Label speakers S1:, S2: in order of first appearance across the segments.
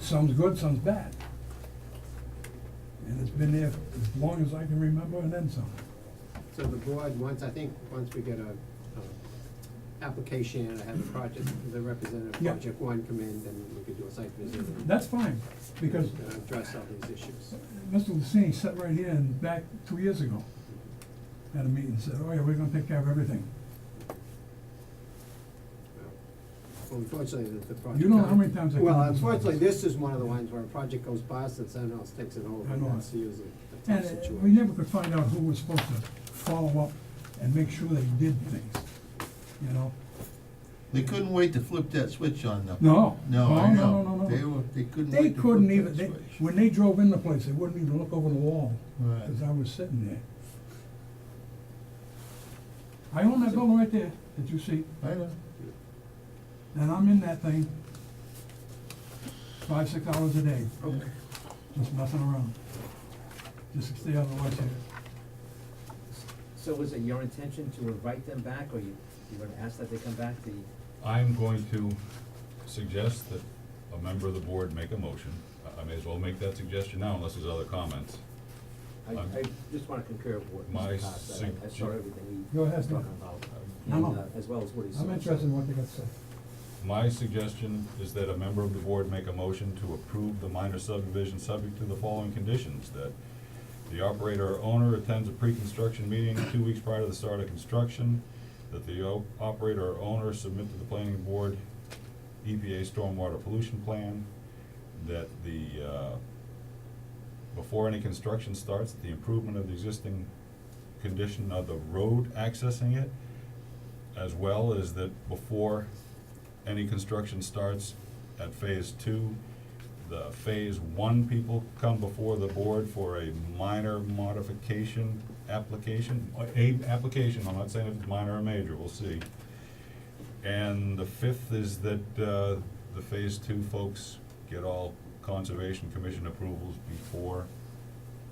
S1: some's good, some's bad. And it's been there as long as I can remember and then some.
S2: So the board, once, I think, once we get a, a application and I have a project, the representative
S1: Yeah.
S2: project one come in, then we could do a site visit and
S1: That's fine, because
S2: and address all these issues.
S1: Mr. Lucini sat right here and back two years ago at a meeting and said, oh yeah, we're gonna take care of everything.
S2: Well, unfortunately, the, the project.
S1: You know how many times I
S2: Well,
S1: come to this
S2: unfortunately,
S1: office.
S2: this is one of the ones where a project goes past and someone else takes it over,
S1: I
S2: and
S1: know.
S2: that's usually a
S1: And
S2: tough
S1: uh,
S2: situation.
S1: we never could find out who was supposed to follow up and make sure they did things, you know?
S3: They couldn't wait to flip that switch on them.
S1: No.
S3: No, I
S1: No, no,
S3: know.
S1: no,
S3: They
S1: no,
S3: were, they couldn't
S1: They
S3: wait to flip
S1: couldn't even,
S3: that
S1: they,
S3: switch.
S1: when they drove in the place, they wouldn't even look over the wall,
S3: Right.
S1: cause I was sitting there. I own that building right there, that you see,
S3: I know.
S1: and I'm in that thing five, six hours a day, just messing around. Just to stay out of the way here.
S4: So is it your intention to invite them back, or you, you're gonna ask that they come back, the,
S5: I'm going to suggest that a member of the board make a motion. I- I may as well make that suggestion now unless there's other comments.
S4: I,
S5: I'm-
S4: I just wanna concur with what
S5: My
S4: Mr. Cox said, I, I saw
S5: sug-
S4: everything he
S1: Go ahead,
S4: was
S1: Steve.
S4: talking about.
S1: No,
S4: and,
S1: no.
S4: uh, As well as what he said.
S1: I'm interested in what they got to say.
S5: My suggestion is that a member of the board make a motion to approve the minor subdivision subject to the following conditions, that the operator or owner attends a pre-construction meeting two weeks prior to the start of construction, that the o- operator or owner submit to the planning board EPA stormwater pollution plan, that the, uh, before any construction starts, the improvement of the existing condition of the road accessing it, as well as that before any construction starts at phase two, the phase one people come before the board for a minor modification application, or a application, I'm not saying if it's minor or major, we'll see. And the fifth is that, uh, the phase two folks get all conservation commission approvals before,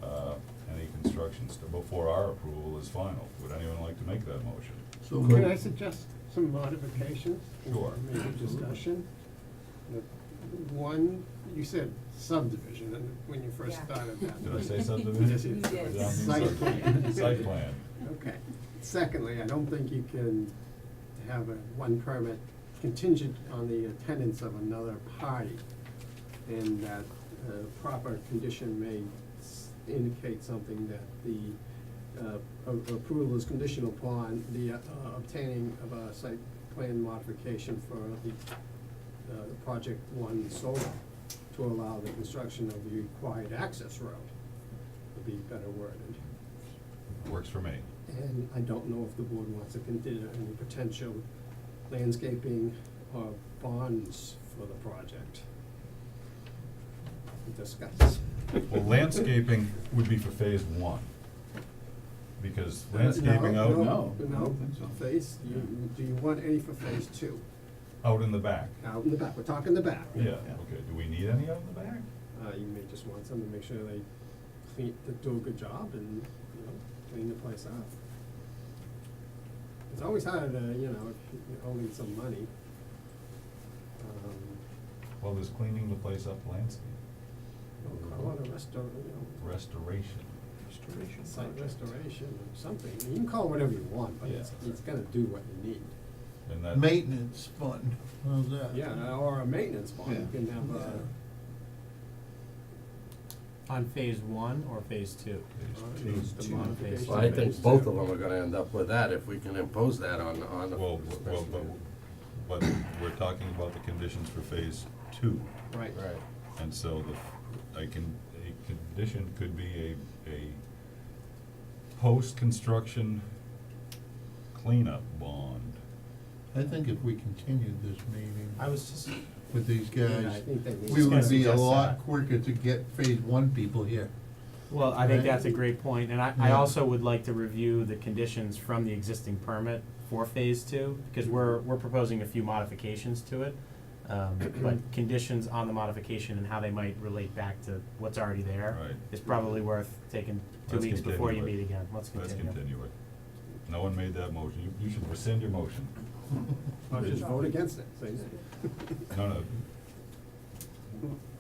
S5: uh, any construction, st- before our approval is final. Would anyone like to make that motion?
S3: So
S2: Can I
S3: moved.
S2: suggest some modifications?
S5: Sure.
S2: Maybe discussion? The One, you said subdivision, and when you first
S6: Yeah.
S2: started that.
S5: Did I say subdivision?
S2: Yes, you
S6: You
S2: did.
S6: did.
S2: Site plan.
S5: Site plan.
S2: Okay. Secondly, I don't think you can have a one permit contingent on the attendance of another party. And that a proper condition may s- indicate something that the uh, a- approval is conditional upon the uh, obtaining of a site plan modification for the uh, project one solar to allow the construction of the required access road, would be better worded.
S5: Works for me.
S2: And I don't know if the board wants to consider any potential landscaping or bonds for the project. Discuss.
S5: Well, landscaping would be for phase one. Because
S2: No,
S5: landscaping out,
S2: No,
S3: I
S2: no,
S3: don't think so.
S2: phase, you, do you want any for phase two?
S5: out in the back.
S2: Out in the back, we're talking the back.
S5: Yeah, okay. Do we need any out in the back?
S2: Uh, you may just want some to make sure they clean, they do a good job and, you know, clean the place up. It's always hard to, you know, if you owe me some money. Um,
S5: Well, there's cleaning the place up landscape,
S2: I want a restaurant, you know,
S5: restoration.
S3: Restoration
S2: site
S3: project.
S2: restoration or something, you can call it whatever you want, but it's,
S5: Yeah.
S2: it's gonna do what you need.
S5: And that,
S3: Maintenance fund, how's that?
S2: Yeah, or a maintenance bond, you
S3: Yeah.
S2: can have uh, a,
S7: On phase one or phase two?
S5: phase
S2: the
S5: two.
S2: modification.
S8: Well, I
S2: phase
S8: think both
S2: two.
S8: of them are gonna end up with that if we can impose that on, on the.
S5: Well, w- well, but, but we're talking about the conditions for phase two.
S2: Right,
S8: Right.
S5: And so the, a con, a condition could be a, a post-construction cleanup bond.
S3: I think if we continued this meeting
S7: I was just,
S3: with these
S2: and I
S3: guys,
S2: think that
S3: we
S7: Just
S2: needs,
S3: would
S7: gonna
S3: be a
S7: suggest
S3: lot
S7: that.
S3: quicker to get phase one people here.
S7: well, I think
S3: Right.
S7: that's a great point, and I, I
S3: Yeah.
S7: also would like to review the conditions from the existing permit for phase two, because we're, we're proposing a few modifications to it. Um, but conditions on the modification and how they might relate back to what's already there
S5: Right.
S7: is probably worth taking two
S5: Let's
S7: weeks before you
S5: continue it.
S7: meet again, let's continue.
S5: Let's continue it. No one made that motion. You, you should rescind your motion.
S2: or just vote against it, so you-
S5: No, no.